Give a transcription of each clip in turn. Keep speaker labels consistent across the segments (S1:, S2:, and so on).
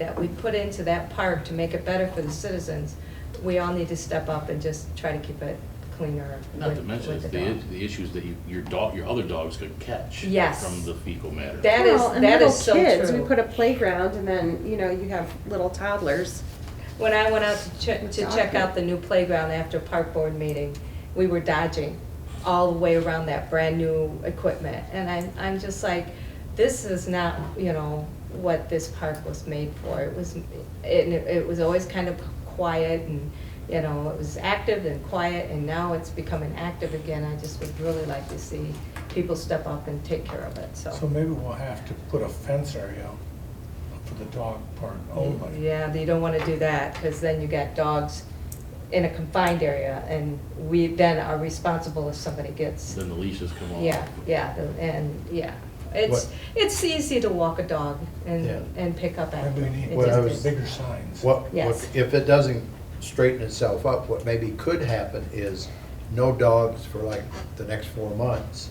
S1: that we put into that park to make it better for the citizens, we all need to step up and just try to keep it cleaner.
S2: Not to
S1: with-
S2: mention,
S1: with
S2: it's
S1: the
S2: the,
S1: dog.
S2: the issues that you- your dog, your other dogs could catch.
S1: Yes.
S2: From the fecal matter.
S1: That is-
S3: Well, and
S1: that
S3: little
S1: is so
S3: kids,
S1: true.
S3: We put a playground and then, you know, you have little toddlers.
S1: When I went out to check, to
S3: Dog
S1: check out
S3: food.
S1: the new playground after park board meeting, we were dodging all the way around that brand-new equipment. And I'm, I'm just like, this is not, you know, what this park was made for. It was, it, it was always kind of quiet and, you know, it was active and quiet, and now it's becoming active again. I just would really like to see people step up and take care of it, so.
S4: So maybe we'll have to put a fence area out for the dog park
S5: Oh,
S1: Oh,
S4: only.
S1: Yeah, you don't want to do that, because then you got dogs in a confined area, and we then are responsible if somebody gets,
S2: Then the leashes come off.
S1: yeah, yeah, the- and, yeah. It's,
S5: What-
S1: it's easy to walk a dog and,
S5: Yeah.
S1: and pick up after.
S4: Maybe we need
S1: It
S5: Well, I
S1: just
S5: was-
S1: is.
S4: bigger signs.
S5: What,
S1: Yes.
S5: what, if it doesn't straighten itself up, what maybe could happen is no dogs for like the next four months.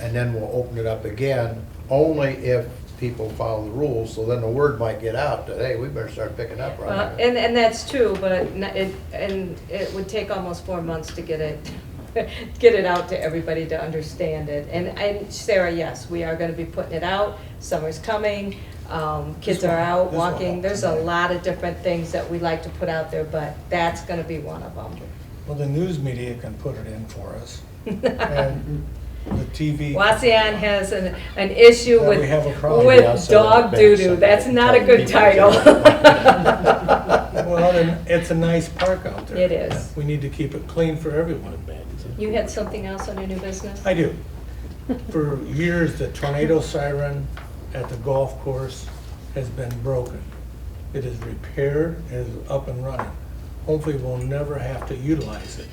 S5: And then we'll open it up again, only if people follow the rules, so then the word might get out that, hey, we better start picking up
S1: Well,
S5: right now.
S1: and, and that's true, but it- it, and it would take almost four months to get it, get it out to everybody to understand it. And, and Sarah, yes, we are gonna be putting it out, summer's coming, um, kids
S4: This
S1: are
S4: will-
S1: out
S4: this will
S1: walking.
S4: help.
S1: There's a lot of different things that we like to put out there, but that's gonna be one of
S4: Well, the news media can put it in for us,
S1: them.
S4: and the TV.
S1: Waseon has an, an issue
S4: That
S1: with,
S4: we have a problem.
S5: Yeah, I'll
S1: with
S5: sell that
S1: dog
S5: back
S1: doo-doo.
S5: someday.
S1: That's not a
S5: Tell
S1: good
S5: people
S1: title.
S5: to-
S4: Well, then, it's a nice park out there.
S1: It is.
S4: We need to keep it clean for everyone.
S1: You had something else on your new business?
S4: I do. For years, the tornado siren at the golf course has been broken. It is repaired, it is up and running. Hopefully, we'll never have to utilize it.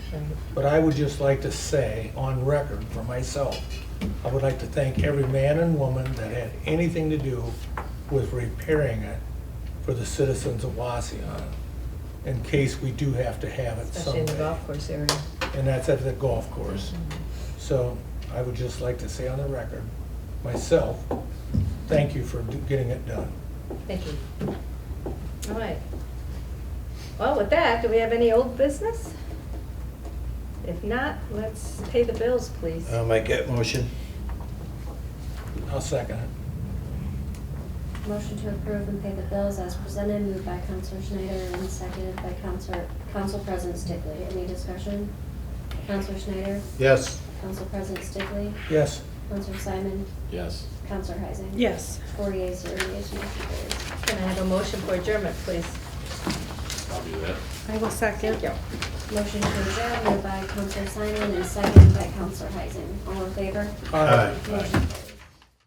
S4: But I would just like to say, on record for myself, I would like to thank every man and woman that had anything to do with repairing it for the citizens of Waseon, in case we do have to have it
S1: Especially in the
S4: someday.
S1: golf course area.
S4: And that's at the golf course. So I would just like to say on the record, myself, thank you for do- getting it done.
S1: Thank you. All right. Well, with that, do we have any old business? If not, let's pay the bills, please.
S5: I'll make that motion.
S4: I'll second it.
S6: Motion to approve and pay the bills as presented, moved by Counselor Schneider and seconded by Counselor, Council President Stickley. Any discussion? Counselor Schneider,
S5: Yes,
S6: Council President Stickley,
S4: Yes,
S6: Counselor Simon,
S2: Yes.
S6: Counselor Heising.
S3: Yes.
S6: Four yeas, zero nays, motion carries.
S1: Can I have a motion for adjournment, please?
S2: I'll do that.
S3: I will second.
S1: Thank you.
S6: Motion to adjourn, moved by Counselor Simon and seconded by Counselor Heising. All in favor?
S4: Aye.
S6: Motion carries.